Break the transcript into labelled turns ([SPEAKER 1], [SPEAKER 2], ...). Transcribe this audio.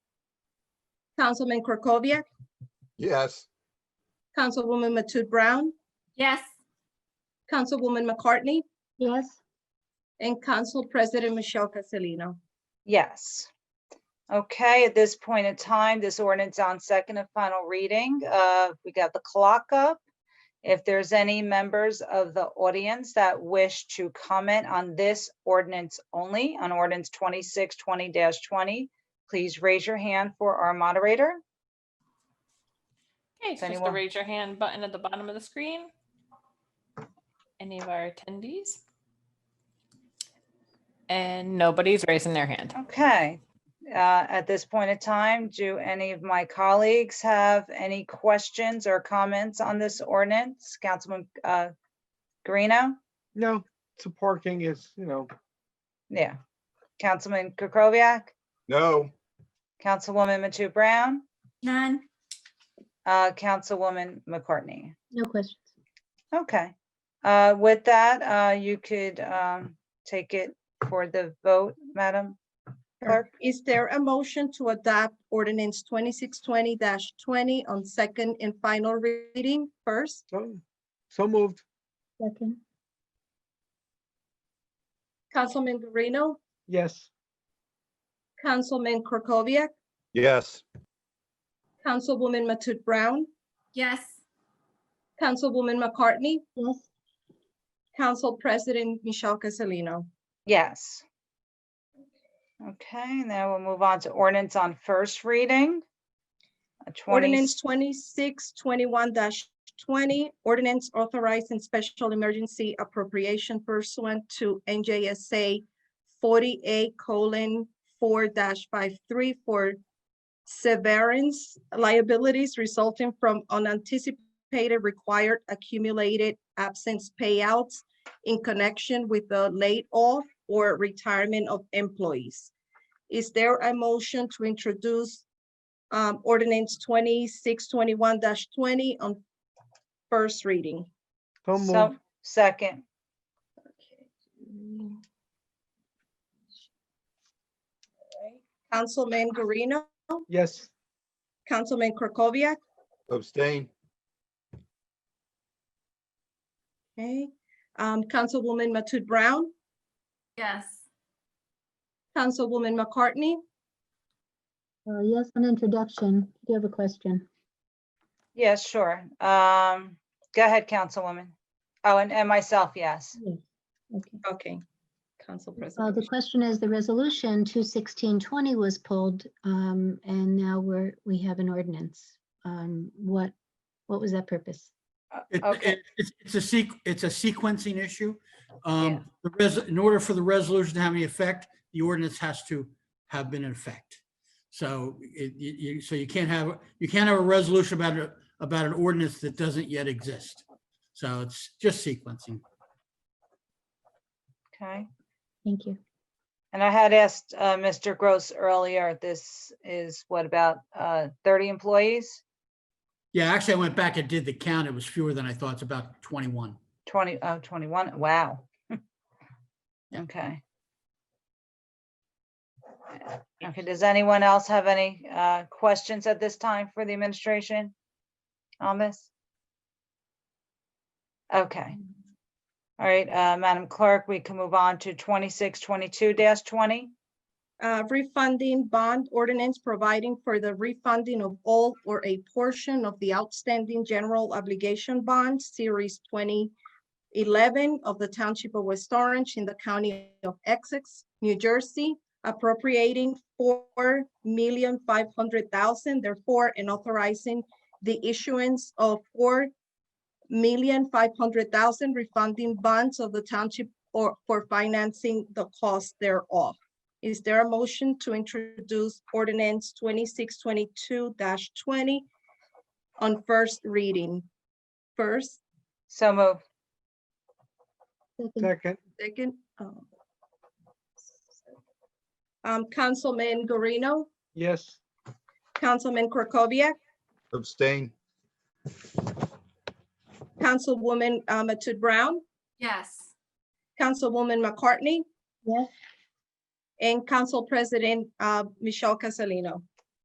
[SPEAKER 1] Councilman Krokoviac,
[SPEAKER 2] Yes.
[SPEAKER 1] Councilwoman Matute Brown,
[SPEAKER 3] Yes.
[SPEAKER 1] Councilwoman McCartney,
[SPEAKER 4] Yes.
[SPEAKER 1] and Council President Michelle Casalino.
[SPEAKER 5] Yes. Okay, at this point in time, this ordinance on second and final reading, uh, we got the clock up. If there's any members of the audience that wish to comment on this ordinance only, on ordinance twenty-six twenty twenty, please raise your hand for our moderator.
[SPEAKER 6] Okay, it's just the
[SPEAKER 5] anyone-
[SPEAKER 6] raise your hand button at the bottom of the screen. Any of our attendees? And nobody's raising their hand.
[SPEAKER 5] Okay, uh, at this point in time, do any of my colleagues have any questions or comments on this ordinance? Councilman, uh, Guarino?
[SPEAKER 7] No, so parking is, you know,
[SPEAKER 5] Yeah. Councilman Kukoviac,
[SPEAKER 2] No.
[SPEAKER 5] Councilwoman Matu Brown,
[SPEAKER 3] None.
[SPEAKER 5] uh, Councilwoman McCartney.
[SPEAKER 4] No questions.
[SPEAKER 5] Okay. Uh, with that, uh, you could, um, take it for the vote, Madam Clerk.
[SPEAKER 1] Is there a motion to adopt ordinance twenty-six twenty twenty on second and final reading first?
[SPEAKER 7] so, so moved.
[SPEAKER 4] Second.
[SPEAKER 1] Councilman Guarino,
[SPEAKER 7] Yes,
[SPEAKER 1] Councilman Krokoviac,
[SPEAKER 2] Yes.
[SPEAKER 1] Councilwoman Matute Brown,
[SPEAKER 3] Yes.
[SPEAKER 1] Councilwoman McCartney,
[SPEAKER 4] Yes.
[SPEAKER 1] Council President Michelle Casalino.
[SPEAKER 5] Yes. Okay, now we'll move on to ordinance on first reading. A 20
[SPEAKER 1] Ordinance twenty-six twenty-one twenty, ordinance authorizing special emergency appropriation pursuant to NJSA forty-eight colon four dash five-three for severance liabilities resulting from unanticipated required accumulated absence payouts in connection with the laid off or retirement of employees. Is there a motion to introduce um, ordinance twenty-six twenty-one twenty on first reading.
[SPEAKER 7] so
[SPEAKER 5] So,
[SPEAKER 7] moved.
[SPEAKER 5] second,
[SPEAKER 1] Councilman Guarino,
[SPEAKER 7] Yes,
[SPEAKER 1] Councilman Krokoviac,
[SPEAKER 2] Abstain.
[SPEAKER 1] okay, um, Councilwoman Matute Brown,
[SPEAKER 3] Yes.
[SPEAKER 1] Councilwoman McCartney,
[SPEAKER 4] Uh, yes, on introduction, do you have a question?
[SPEAKER 5] yes, sure. Um, go ahead, Councilwoman. Oh, and, and myself, yes.
[SPEAKER 4] Okay.
[SPEAKER 1] okay, Council
[SPEAKER 4] Uh,
[SPEAKER 1] President.
[SPEAKER 4] the question is, the resolution two sixteen twenty was pulled, um, and now we're, we have an ordinance. Um, what, what was that purpose?
[SPEAKER 8] It-
[SPEAKER 5] Okay.
[SPEAKER 8] it- It's, it's a sequ, it's a sequencing issue.
[SPEAKER 5] Yeah.
[SPEAKER 8] Um, the res, in order for the resolution to have any effect, the ordinance has to have been in effect. So it, you, you- so you can't have, you can't have a resolution about, a- about an ordinance that doesn't yet exist. So it's just sequencing.
[SPEAKER 5] Okay.
[SPEAKER 4] Thank you.
[SPEAKER 5] And I had asked uh, Mr. Gross earlier, this is what about uh, 30 employees?
[SPEAKER 8] Yeah, actually, I went back and did the count. It was fewer than I thought. It's about 21.
[SPEAKER 5] 20, oh, 21, wow. Okay. Okay, does anyone else have any uh, questions at this time for the administration on this? Okay. All right, uh, Madam Clerk, we can move on to 2622-20.
[SPEAKER 1] uh, refunding bond ordinance providing for the refunding of all or a portion of the outstanding general obligation bond, series twenty eleven of the Township of West Orange in the County of Essex, New Jersey, appropriating four million five hundred thousand, therefore, and authorizing the issuance of four million five hundred thousand refunding bonds of the township or for financing the cost thereof. Is there a motion to introduce ordinance twenty-six twenty-two twenty on first reading? First,
[SPEAKER 5] So move.
[SPEAKER 4] Second.
[SPEAKER 7] second,
[SPEAKER 1] second. um, Um, Councilman Guarino,
[SPEAKER 7] yes,
[SPEAKER 1] Councilman Krokoviac,
[SPEAKER 2] Abstain.
[SPEAKER 1] Councilwoman uh, Matute Brown,
[SPEAKER 3] Yes.
[SPEAKER 1] Councilwoman McCartney,
[SPEAKER 4] Yes.
[SPEAKER 1] and Council President uh, Michelle Casalino.